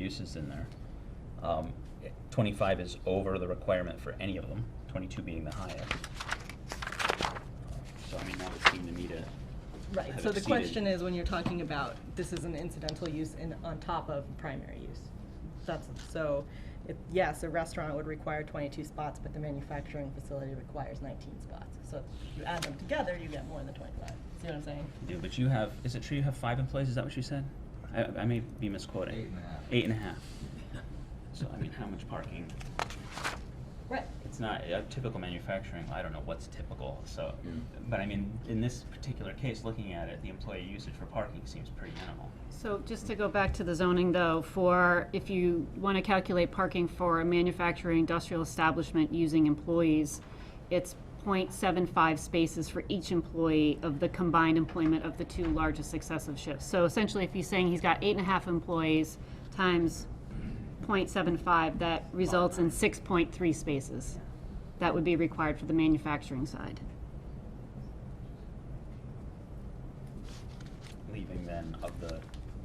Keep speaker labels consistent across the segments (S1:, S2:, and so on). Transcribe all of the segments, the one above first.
S1: uses in there. Um, twenty-five is over the requirement for any of them, twenty-two being the highest. So I mean, that would seem to me to
S2: Right,
S1: have
S2: so the
S1: exceeded-
S2: question is, when you're talking about, this is an incidental use in, on top of primary use. That's, so, it, yes, a restaurant would require twenty-two spots, but the manufacturing facility requires nineteen spots. So if you add them together, you get more than twenty-five, see what I'm saying?
S1: Yeah, but you have, is it true you have five employees, is that what you said? I, I may be misquoting.
S3: Eight and a half.
S1: Eight and a half. So I mean, how much parking?
S2: Right.
S1: It's not, uh, typical manufacturing, I don't know what's typical, so,
S3: Yeah.
S1: but I mean, in this particular case, looking at it, the employee usage for parking seems pretty minimal.
S4: So just to go back to the zoning though, for, if you want to calculate parking for a manufacturing industrial establishment using employees, it's 0.75 spaces for each employee of the combined employment of the two largest successive shifts. So essentially, if he's saying he's got eight and a half employees times 0.75, that results in six point three spaces. That would be required for the manufacturing side.
S1: Leaving then of the,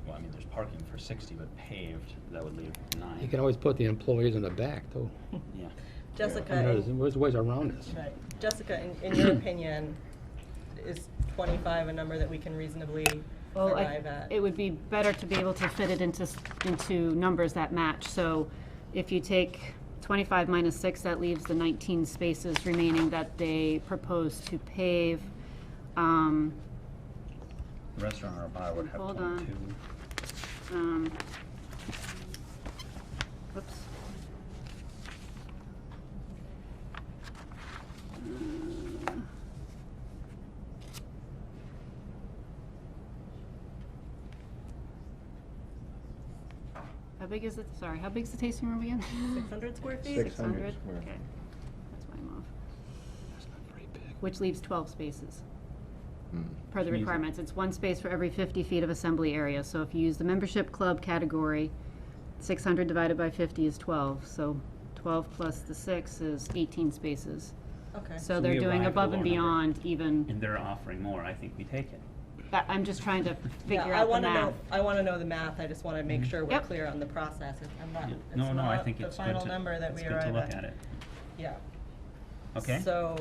S1: well, I mean, there's parking for sixty, but paved, that would leave nine.
S5: You can always put the employees in the back, too.
S1: Yeah.
S2: Jessica.
S5: I mean, there's, there's ways around this.
S2: Right. Jessica, in, in your opinion, is twenty-five a number that we can reasonably
S4: Well, I-
S2: arrive at?
S4: it would be better to be able to fit it into, s- into numbers that match. So if you take 25 minus 6, that leaves the 19 spaces remaining that they propose to pave. Um,
S1: Restaurant or bar would have
S4: Hold on.
S1: twenty-two.
S4: um, Whoops. Uh, Uh, How big is it, sorry, how big's the tasting room again?
S2: Six hundred square feet?
S4: 600?
S3: square.
S4: Okay, that's why I'm off.
S5: It's not very big.
S4: Which leaves 12 spaces
S3: Mm.
S4: per the
S1: Which means-
S4: requirements. It's one space for every 50 feet of assembly area. So if you use the membership club category, 600 divided by 50 is 12. So 12 plus the 6 is 18 spaces.
S2: Okay.
S4: So
S1: we
S4: they're doing
S1: arrive at
S4: above
S1: a
S4: and
S1: lower number.
S4: beyond even,
S1: And they're offering more, I think we take it.
S4: I- I'm just trying to
S2: Yeah,
S4: figure
S2: I
S4: out the
S2: wanna
S4: math. Mm-hmm.
S2: know. I want to know the math, I just want to make sure we're
S4: Yep.
S2: clear on the process. It- I'm not,
S1: Yeah.
S2: it's
S1: No, no, I
S2: not
S1: think
S2: the
S1: it's good
S2: final
S1: to,
S2: number that
S1: it's
S2: we
S1: good to
S2: arrive
S1: look at it.
S2: at. Yeah.
S1: Okay?
S2: So,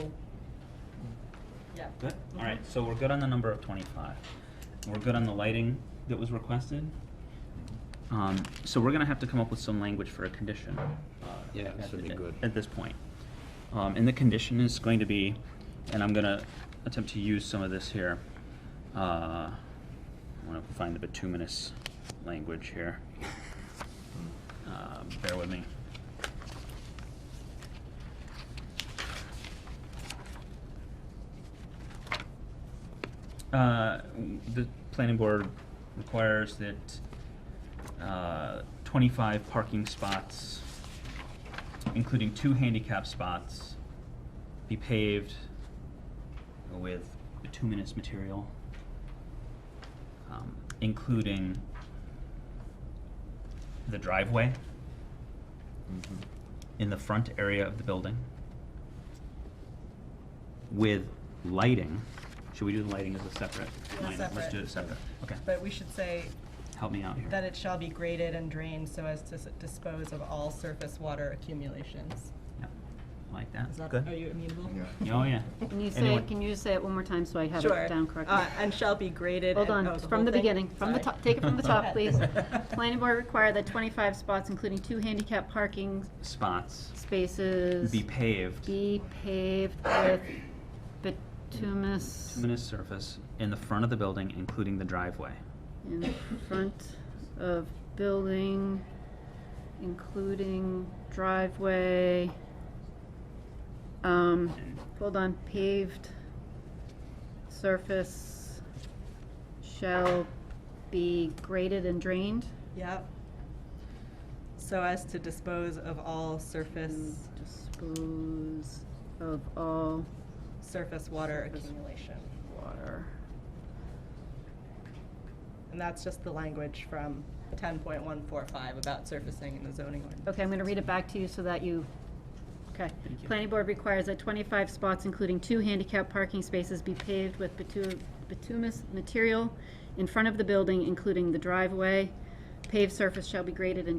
S2: yeah. Mm-hmm.
S1: Good, all right, so we're good on the number of twenty-five. We're good on the lighting that was requested. Um, so we're gonna have to come up with some language for a condition. uh,
S5: Yeah,
S1: at
S5: this would
S1: the-
S5: be good.
S1: At this point. Um, and the condition is going to be, and I'm gonna attempt to use some of this here. Uh, I wanna find the bituminous language here. Uh, bear with me. Uh, the planning board requires that, uh, twenty-five parking spots, including two handicap spots, be paved with bituminous material, um, including the driveway
S3: Mhm.
S1: in the front area of the building with lighting. Should we do the lighting as a separate?
S2: Yeah,
S1: line item? Let's do it
S2: separate.
S1: separate. Okay.
S2: But we should say
S1: Help me out here.
S2: that it shall be graded and drained so as to s- dispose of all surface water accumulations.
S1: Yeah. Like that?
S2: Is that,
S1: Good.
S2: are you amenable?
S3: Yeah.
S1: Oh, yeah.
S4: Can you say,
S1: Anyone-
S4: can you say it one more time so I have
S2: Sure.
S4: it down correctly?
S2: Uh, And shall be graded.
S4: Hold
S2: and-
S4: on,
S2: oh, the
S4: from
S2: whole
S4: the
S2: thing?
S4: beginning, from the
S2: Sorry.
S4: top, take it from the top,
S2: Go
S4: please.
S2: ahead.
S4: Planning board require that 25 spots, including two handicap parking
S1: Spots
S4: spaces.
S1: be paved.
S4: be paved with bituminous
S1: Bituminous surface in the front of the building, including the driveway.
S4: in front of building, including driveway. Um, hold on, paved surface shall be graded and drained.
S2: Yep. So as to dispose of all surface,
S4: Mm, Dispose of all
S2: surface water
S4: Surface.
S2: accumulation.
S4: water.
S2: And that's just the language from ten point one four five about surfacing in the zoning ordinance.
S4: Okay, I'm gonna read it back to you so that you, okay.
S1: Thank you.
S4: Planning board requires that twenty-five spots, including two handicap parking spaces, be paved with bitu- bituminous material in front of the building, including the driveway. Paved surface shall be graded and